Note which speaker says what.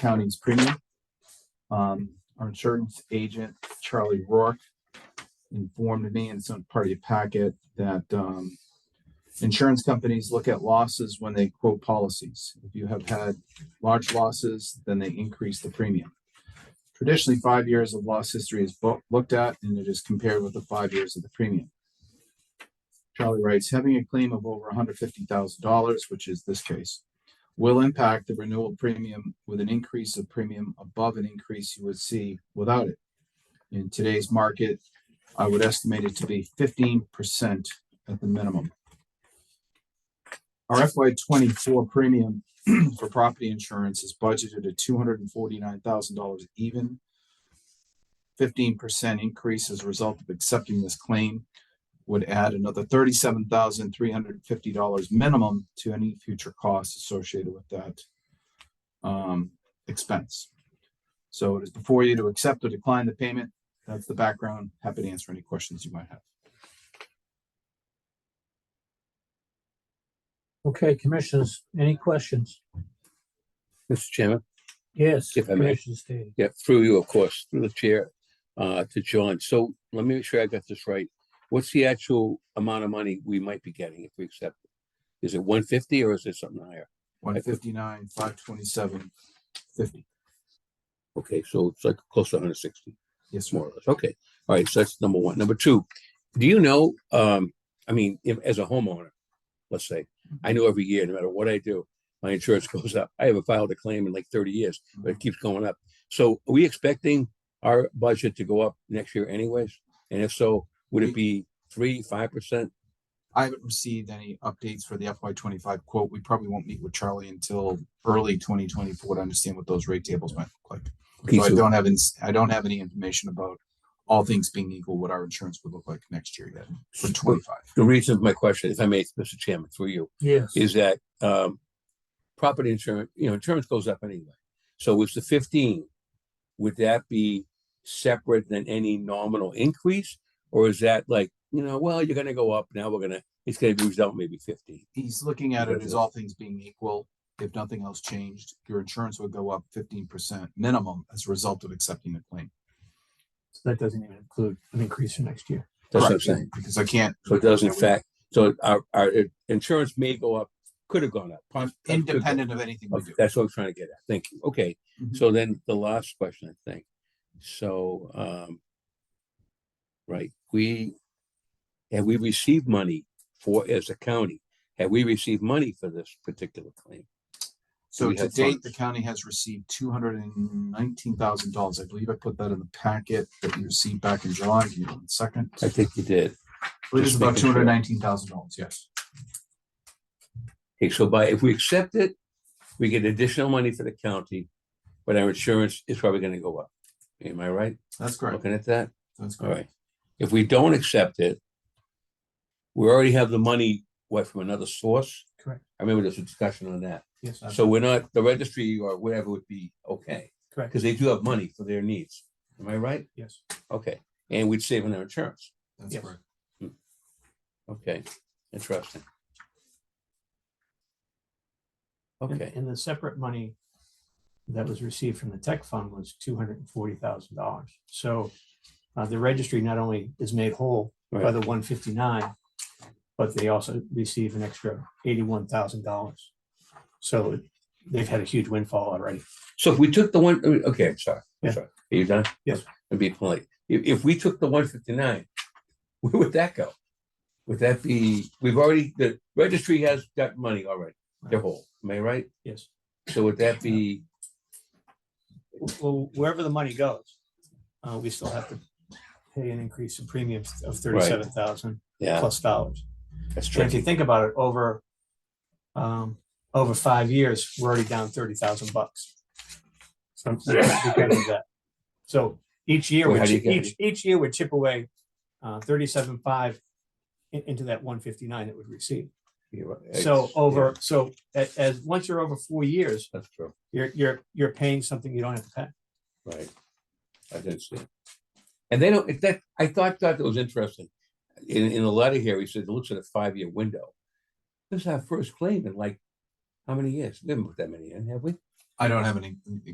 Speaker 1: county's premium. Um, our insurance agent, Charlie Rourke, informed me and sent part of your packet that, um, insurance companies look at losses when they quote policies. If you have had large losses, then they increase the premium. Traditionally, five years of loss history is bo- looked at and it is compared with the five years of the premium. Charlie writes, having a claim of over hundred fifty thousand dollars, which is this case, will impact the renewal premium with an increase of premium above an increase you would see without it. In today's market, I would estimate it to be fifteen percent at the minimum. Our FY twenty-four premium for property insurance is budgeted at two hundred and forty-nine thousand dollars even. Fifteen percent increase as a result of accepting this claim would add another thirty-seven thousand three hundred and fifty dollars minimum to any future costs associated with that um, expense. So it is before you to accept or decline the payment. That's the background. Happy to answer any questions you might have.
Speaker 2: Okay, commissioners, any questions?
Speaker 3: Mr. Chairman,
Speaker 2: Yes,
Speaker 3: If I may.
Speaker 2: Commissioner Stady.
Speaker 3: yeah, through you, of course, through the chair, uh, to John. So let me make sure I got this right. What's the actual amount of money we might be getting if we accept? it? Is it one fifty or is it something higher?
Speaker 1: One fifty-nine, five twenty-seven, fifty.
Speaker 3: Okay, so it's like close to hundred sixty,
Speaker 1: Yes, sir.
Speaker 3: more or less. Okay, all right, so that's number one. Number two, do you know, um, I mean, if, as a homeowner, let's say, I know every year, no matter what I do, my insurance goes up. I haven't filed a claim in like thirty years. but it keeps going up. So are we expecting our budget to go up next year anyways? And if so, would it be three, five percent?
Speaker 1: I haven't received any updates for the FY twenty-five quote. We probably won't meet with Charlie until early twenty twenty-four to understand what those rate tables might look like. So I don't have, ins- I don't have any information about all things being equal, what our insurance would look like next year yet for twenty-five.
Speaker 3: The reason for my question, if I may, Mr. Chairman, through you,
Speaker 2: Yes,
Speaker 3: is that um property insurance, you know, insurance goes up anyway. So it's the fifteen. Would that be separate than any nominal increase? Or is that like, you know, well, you're gonna go up, now we're gonna, it's gonna be result maybe fifteen?
Speaker 1: He's looking at it as
Speaker 3: Congratulations.
Speaker 1: all things being equal. If nothing else changed, your insurance would go up fifteen percent minimum as a result of accepting the claim.
Speaker 2: that doesn't even include an increase for next year.
Speaker 3: That's what I'm
Speaker 1: Correct,
Speaker 3: saying.
Speaker 1: Because I can't.
Speaker 3: So it does in
Speaker 1: Yeah, we-
Speaker 3: fact, so our, our i- insurance may go up, could have gone up. pos- could have gone
Speaker 1: Independent of anything we
Speaker 3: up.
Speaker 1: do.
Speaker 3: That's what I'm trying to get at. Thank you. Okay,
Speaker 1: Mhm.
Speaker 3: so then the last question, I think. So, um, right, we, have we received money for, as a county, have we received money for this particular claim?
Speaker 1: So
Speaker 3: we
Speaker 1: to
Speaker 3: have
Speaker 1: date, the
Speaker 3: funds.
Speaker 1: county has received two hundred and nineteen thousand dollars. I believe I put that in the packet that you received back in July. Give me one second.
Speaker 3: I think you did.
Speaker 1: It is
Speaker 3: just
Speaker 1: about two
Speaker 3: making sure.
Speaker 1: hundred and nineteen thousand dollars, yes.
Speaker 3: Okay, so by, if we accept it, we get additional money for the county, but our insurance is probably gonna go up. Am I right?
Speaker 1: That's correct.
Speaker 3: Looking at that?
Speaker 1: That's
Speaker 3: All
Speaker 1: correct.
Speaker 3: right. If we don't accept it, we already have the money, what, from another source?
Speaker 2: Correct.
Speaker 3: I remember there's a discussion on that.
Speaker 2: Yes.
Speaker 3: So we're not, the registry or whatever would be okay,
Speaker 2: Correct,
Speaker 3: because they do have money for their needs. Am I right?
Speaker 2: yes.
Speaker 3: Okay. And we'd save on our insurance.
Speaker 1: That's
Speaker 2: Yes.
Speaker 1: correct.
Speaker 3: Okay, interesting.
Speaker 2: And-
Speaker 3: Okay,
Speaker 2: And the separate money that was received from the tech fund was two hundred and forty thousand dollars. So uh, the registry not only is made whole by
Speaker 3: Right.
Speaker 2: the one fifty-nine, but they also receive an extra eighty-one thousand dollars. So they've had a huge windfall already.
Speaker 3: so if we took the one, okay, I'm sorry. I'm
Speaker 2: Yeah.
Speaker 3: sorry. Are you done?
Speaker 2: Yes.
Speaker 3: And be polite. If, if we took the one fifty-nine, where would that go? Would that be, we've already, the registry has got money already, they're whole, am I right?
Speaker 2: Yes.
Speaker 3: So would that be,
Speaker 2: Well, wherever the money goes, uh, we still have to pay an increase in premiums of thirty-seven thousand
Speaker 3: yeah,
Speaker 2: plus dollars.
Speaker 3: that's
Speaker 2: And if you
Speaker 3: tricky,
Speaker 2: think about it, over, um, over five years, we're already down thirty thousand bucks. From, because of that. So each year,
Speaker 3: Well,
Speaker 2: we
Speaker 3: how do you
Speaker 2: chi-
Speaker 3: get
Speaker 2: each, each year we chip away, uh, thirty-seven five into that one fifty-nine that we receive.
Speaker 3: You're right.
Speaker 2: So
Speaker 3: It's- yeah,
Speaker 2: over, so as, as, once you're over four years,
Speaker 3: That's true,
Speaker 2: you're, you're, you're paying something you don't have to pay.
Speaker 3: right. I didn't see. it. And they don't, if that, I thought, thought that was interesting. In, in the letter here, he said, it looks at a five-year window. This is our first claim in like, how many years? We haven't put that many in, have we?
Speaker 1: I don't have any